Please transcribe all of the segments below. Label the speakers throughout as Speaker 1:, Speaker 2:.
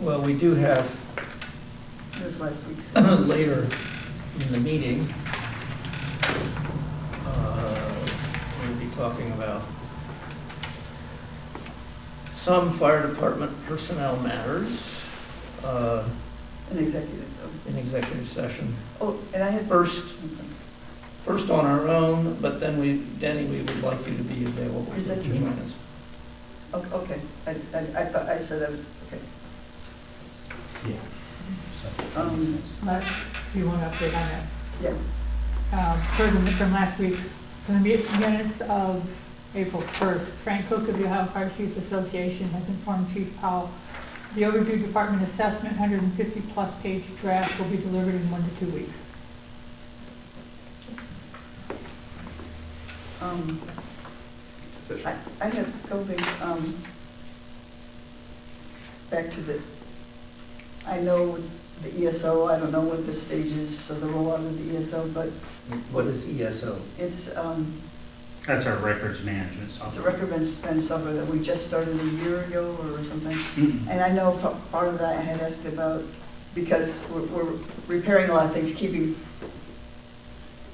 Speaker 1: Well, we do have
Speaker 2: This last week's.
Speaker 1: later in the meeting, uh, we'll be talking about some fire department personnel matters uh,
Speaker 2: An executive. um,
Speaker 1: in executive session.
Speaker 2: Oh, and I had.
Speaker 1: First, first on our own, but then we, Denny, we would like you to be available for
Speaker 2: Present
Speaker 1: two
Speaker 2: your-
Speaker 1: minutes.
Speaker 2: Oh, Okay, I, I, I thought, I said, I would- okay.
Speaker 3: Yeah.
Speaker 2: Um,
Speaker 4: Last, you want to update on that?
Speaker 2: Yeah.
Speaker 4: Um, Per the- from last week's, from the mi- minutes of April 1st, Frank Cook of the Ohio Fire Chiefs Association has informed Chief Powell, the overdue department assessment, 150-plus page draft will be delivered in one to two weeks.
Speaker 2: um, I, I had a couple things, um, back to the, I know with the ESO, I don't know what the stage is of the rollout of the ESO, but
Speaker 1: What is E ESO?
Speaker 2: it's, um,
Speaker 3: That's our records management
Speaker 2: it's a
Speaker 3: software.
Speaker 2: record bench, bench software that we just started a year ago or something.
Speaker 3: Mm.
Speaker 2: And I know pa- part of that I had asked about, because we're- we're repairing a lot of things, keeping,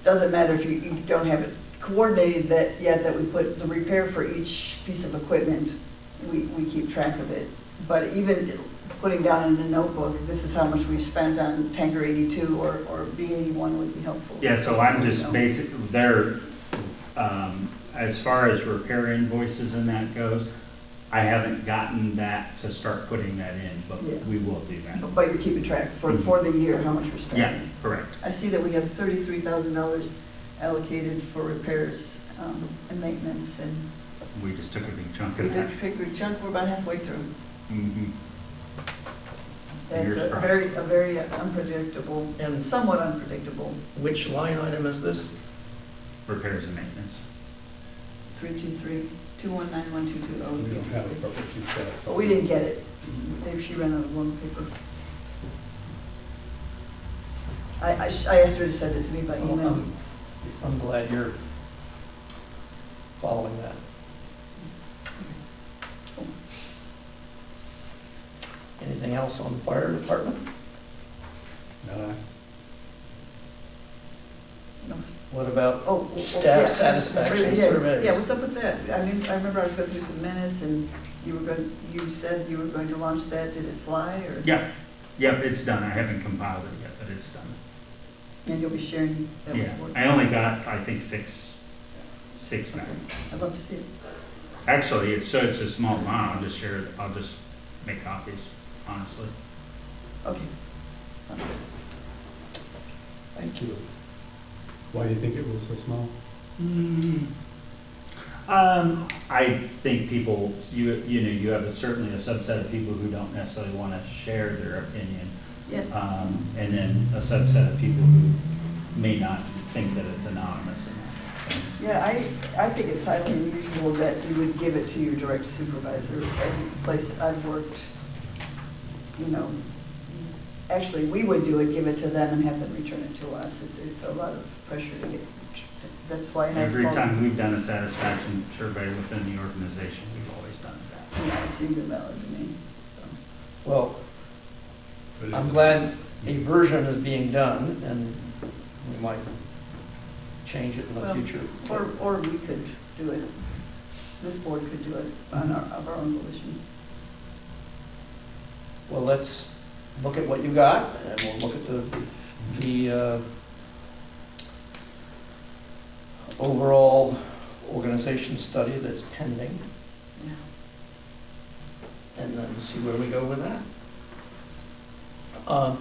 Speaker 2: doesn't matter if you, you don't have it coordinated that, yet that we put the repair for each piece of equipment, we, we keep track of it. But even putting down in a notebook, this is how much we spent on tanker eighty-two or, or B eighty-one would be helpful.
Speaker 3: Yeah, so I'm just
Speaker 2: So,
Speaker 3: basic, there, um, as far as repair invoices and that goes, I haven't gotten that to start putting that in, but
Speaker 2: Yeah.
Speaker 3: we will do that.
Speaker 2: But you're keeping track for, for the year, how much we're spending.
Speaker 3: Yeah, correct.
Speaker 2: I see that we have thirty-three thousand dollars allocated for repairs um, and maintenance, and
Speaker 3: We just took a big chunk
Speaker 2: we
Speaker 3: of that.
Speaker 2: did pick a chunk, we're about halfway through.
Speaker 3: Mhm.
Speaker 2: That's
Speaker 3: Fingers
Speaker 2: a
Speaker 3: crossed.
Speaker 2: very, a very unpredictable,
Speaker 1: And
Speaker 2: somewhat unpredictable,
Speaker 1: which line item is this?
Speaker 3: Repairs and maintenance.
Speaker 2: three-two-three, two-one-nine-one-two-two oh.
Speaker 5: We don't have a perfect two sets.
Speaker 2: But we didn't get it, They- she ran out of one paper. I, I sh- I asked her to send it to me by
Speaker 1: Well,
Speaker 2: email.
Speaker 1: I'm- I'm glad you're following that. Anything else on the fire department?
Speaker 5: No,
Speaker 2: No.
Speaker 1: What about,
Speaker 2: Oh, well,
Speaker 1: Staff
Speaker 2: yeah.
Speaker 1: satisfaction
Speaker 2: Yeah,
Speaker 1: surveys.
Speaker 2: Yeah, what's up with that? I mean, I remember I was going through some minutes and you were going, you said you were going to launch that, did it fly or?
Speaker 3: Yeah, yeah, it's done. I haven't compiled it yet, but it's done.
Speaker 2: And you'll be sharing that
Speaker 3: Yeah,
Speaker 2: report?
Speaker 3: I only got, I think, six, six back.
Speaker 2: Okay, I'd love to see it.
Speaker 3: Actually, it's such a small amount, I'll just share, it. I'll just make copies, honestly.
Speaker 2: Okay.
Speaker 1: thank you.
Speaker 5: why do you think it was so small?
Speaker 3: Um, I think people, you, you know, you have a- certainly a subset of people who don't necessarily want to share their opinion.
Speaker 2: Yeah,
Speaker 3: Um, and then a subset of people who may not think that it's anonymous enough.
Speaker 2: yeah, I, I think it's highly unusual that you would give it to your direct supervisor. Every place I've worked, you know, actually, we would do it, give it to them and have them return it to us. It's, it's a lot of pressure to get, that's why I have.
Speaker 3: Every
Speaker 2: all-
Speaker 3: time we've done a satisfaction survey within the organization, we've always done that.
Speaker 2: Yeah, it seems invalid to me. so.
Speaker 1: Well, I'm glad a version is being done, and we might change it in the
Speaker 2: Well,
Speaker 1: future.
Speaker 2: Or, or we could do it, this board could do it on our, of our own volition.
Speaker 1: Well, let's look at what you got, and we'll look at the, the uh, overall organization study that's pending,
Speaker 2: Yeah.
Speaker 1: and then see where we go with that. Um,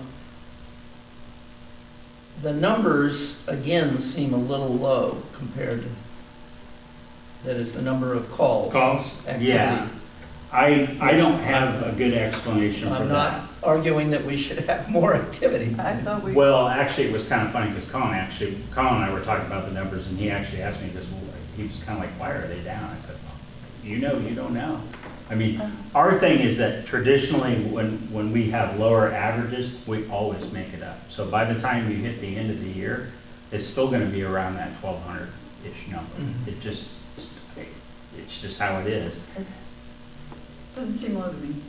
Speaker 1: The numbers, again, seem a little low compared to, that is, the number of calls.
Speaker 3: Calls?
Speaker 1: activity.
Speaker 3: Yeah. I, I don't have a good explanation for
Speaker 1: I'm
Speaker 3: that.
Speaker 1: not arguing that we should have more activity.
Speaker 2: I thought we,
Speaker 3: Well, actually, it was kind of funny because Colin actually, Colin and I were talking about the numbers and he actually asked me this, he was kind of like, why are they down? I said, "Well, you know, you don't know. I mean, our thing is that traditionally, when, when we have lower averages, we always make it up. So by the time you hit the end of the year, it's still going to be around that twelve hundred-ish number.
Speaker 1: Mhm.
Speaker 3: It just, it's just how it is.
Speaker 2: doesn't seem low to me.